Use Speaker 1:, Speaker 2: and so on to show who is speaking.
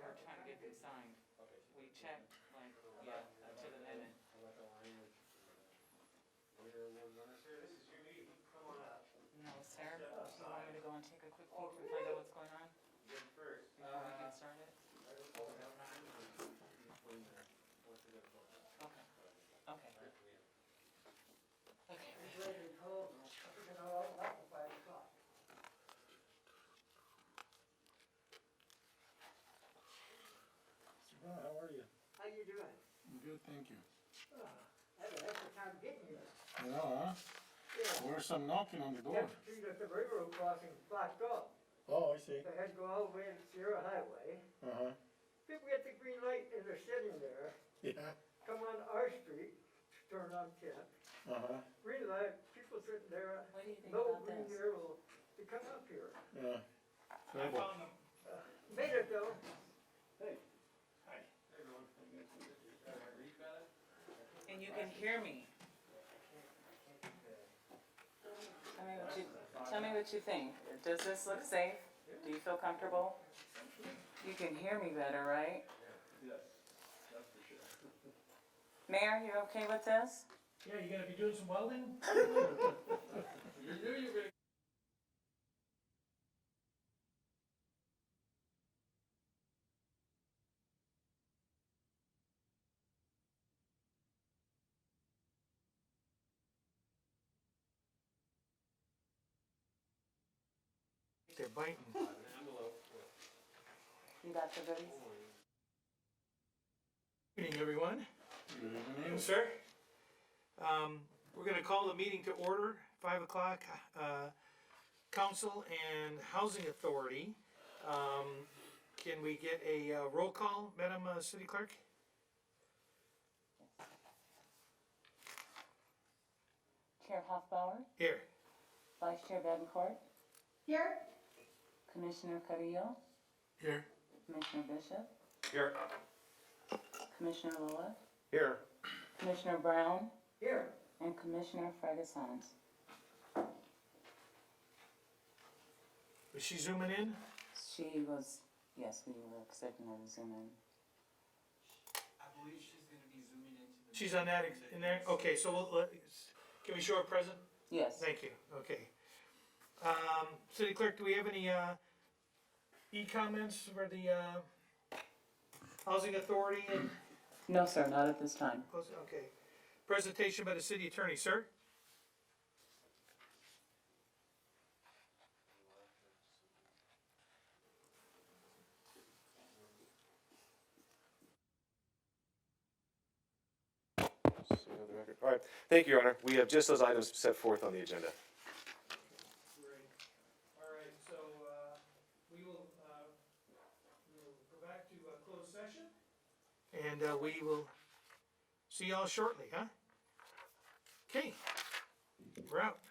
Speaker 1: record signed.
Speaker 2: Okay.
Speaker 1: We checked, like, yeah, uh, to the minute.
Speaker 2: About the language. We're, we're gonna.
Speaker 3: Sir, this is your meeting, come on up.
Speaker 1: No, sir, do you want me to go and take a quick peek and find out what's going on
Speaker 3: You're first.
Speaker 1: before we can start it?
Speaker 2: Oh, no, nine, or- when, uh, what's the good book?
Speaker 1: Okay, okay,
Speaker 2: Right, we have-
Speaker 1: okay.
Speaker 4: It's really cold, man. It's gonna all up at five o'clock.
Speaker 5: Mr. Brown, how are you?
Speaker 4: How you doing?
Speaker 5: I'm good, thank you.
Speaker 4: Oh, I had a heck of a time getting here.
Speaker 5: Yeah, huh?
Speaker 4: Yeah.
Speaker 5: Where's some knocking on the door?
Speaker 4: That's true that the railroad crossing blocked off.
Speaker 5: Oh, I see.
Speaker 4: So I had to go all the way to Sierra Highway.
Speaker 5: Uh-huh.
Speaker 4: People get the green light and they're sitting there,
Speaker 5: Yeah,
Speaker 4: come on our street, turn on ten.
Speaker 5: uh-huh,
Speaker 4: Green light, people sitting there,
Speaker 1: What do you think
Speaker 4: no
Speaker 1: about
Speaker 4: green
Speaker 1: this?
Speaker 4: arrow to come up here.
Speaker 5: yeah.
Speaker 3: I
Speaker 5: Trouble.
Speaker 3: found them.
Speaker 4: Made it though.
Speaker 3: Hi.
Speaker 2: Hey, everyone. Uh, Reed, fella?
Speaker 1: And you can hear me. Tell me what you, tell me what you think. Does this look safe? Do you feel comfortable? You can hear me better, right?
Speaker 3: Yes, that's for sure.
Speaker 1: Mayor, you okay with this?
Speaker 6: Yeah, you're gonna be doing some welding?
Speaker 2: You knew you were gonna
Speaker 6: They're biting.
Speaker 2: have an envelope with
Speaker 1: You got the goodies?
Speaker 2: coins.
Speaker 6: Good evening, everyone.
Speaker 5: Good evening.
Speaker 6: Yes, sir. Um, we're gonna call the meeting to order, five o'clock, uh, Council and Housing Authority. Um, can we get a uh, roll call, Madam uh, City Clerk?
Speaker 1: Chair Hoffbauer,
Speaker 6: Here.
Speaker 1: Vice Chair Bettencourt,
Speaker 7: Here?
Speaker 1: Commissioner Carrillo,
Speaker 6: Here.
Speaker 1: Commissioner Bishop,
Speaker 6: Here.
Speaker 1: Commissioner Lillis,
Speaker 6: Here.
Speaker 1: Commissioner Brown,
Speaker 4: Here,
Speaker 1: and Commissioner Fragasons.
Speaker 6: Is she zooming in?
Speaker 1: She was, yes, we were expecting her to zoom in.
Speaker 8: I believe she's gonna be zooming into the.
Speaker 6: She's on that, ex- in there? Okay, so we'll, let's- can we show her present?
Speaker 1: Yes.
Speaker 6: Thank you, okay. Um, City Clerk, do we have any, uh, e-comments for the, uh, Housing Authority and,
Speaker 1: No, sir, not at this time.
Speaker 6: close- okay. Presentation by the City Attorney, sir?
Speaker 9: So, another record. All right, thank you, Your Honor. We have just those items set forth on the agenda.
Speaker 6: Great. All right, so, uh, we will, uh, we will go back to a closed session. And, uh, we will see y'all shortly, huh? Okay, we're out.